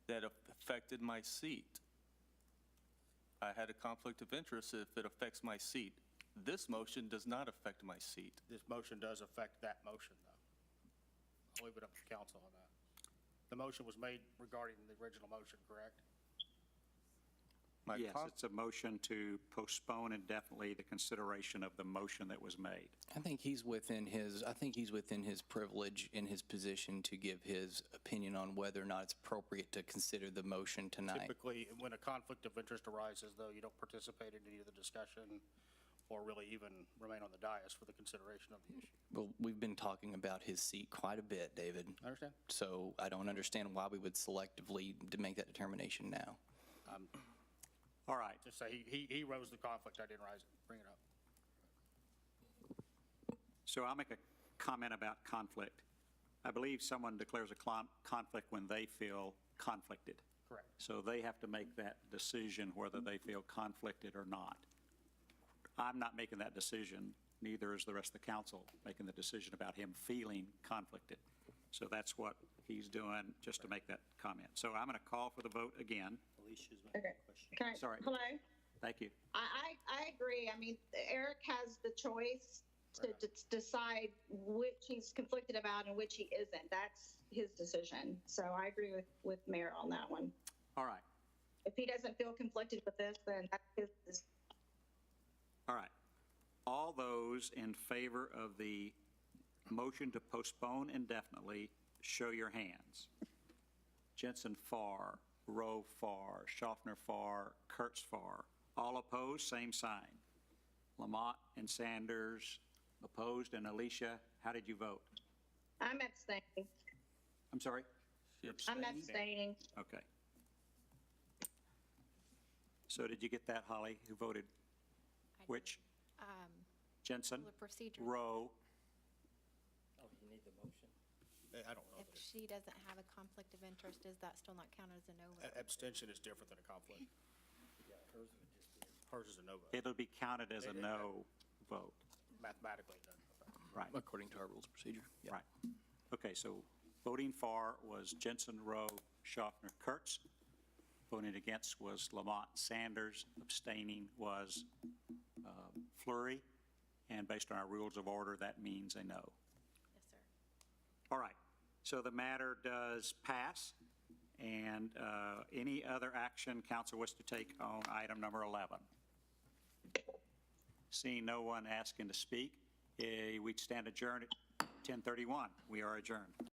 affected my seat. I had a conflict of interest if it affects my seat. This motion does not affect my seat. This motion does affect that motion, though. I'll leave it up to council on that. The motion was made regarding the original motion, correct? My Yes, con- it's a motion to postpone indefinitely the consideration of the motion that was made. I think he's within his, I think he's within his privilege in his position to give his opinion on whether or not it's appropriate to consider the motion tonight. Typically, when a conflict of interest arises, though, you don't participate in any of the discussion or really even remain on the dais for the consideration of the issue. Well, we've been talking about his seat quite a bit, David. I understand. So I don't understand why we would selectively to make that determination now. All right, Just say, he- he, he rose the conflict, I didn't rise it, bring it up. so I'll make a comment about conflict. I believe someone declares a clon- conflict when they feel conflicted. Correct. So they have to make that decision whether they feel conflicted or not. I'm not making that decision, neither is the rest of the council making the decision about him feeling conflicted. So that's what he's doing, just to make that comment. So I'm going to call for the vote again. Alicia's got Okay. a question. Can I, Sorry. hello? Thank you. I, I, I agree. I mean, Eric has the choice to, Right. d decide which he's conflicted about and which he isn't. That's his decision. So I agree with, with Mayor on that one. All right, If he doesn't feel conflicted with this, then that's his decision. all right. All those in favor of the motion to postpone indefinitely, show your hands. Jensen Farr, Rowe Farr, Schaffner Farr, Kurtz Farr. All opposed, same sign. Lamont and Sanders opposed, and Alicia, how did you vote? I'm abstaining. I'm sorry? I'm abstaining. Okay. So did you get that, Holly? Who voted? I Um, Which? Jensen? The procedure. Rowe? Oh, you need the motion? I don't know. If she doesn't have a conflict of interest, does that still not count as a no vote? Abstention is different than a conflict. Yeah, hers would just be. Hers is a no vote, It'll be counted as a no vote, mathematically. it doesn't affect. right, According to our rules of procedure. Yeah. right. Okay, so voting for was Jensen, Rowe, Schaffner, Kurtz. Voting against was Lamont, Sanders. Abstaining was uh, Flurry. And based on our rules of order, that means a no. Yes, sir. All right, so the matter does pass. And uh, any other action council wishes to take on item number 11? Seeing no one asking to speak, eh, we stand adjourned at 10:31. We are adjourned.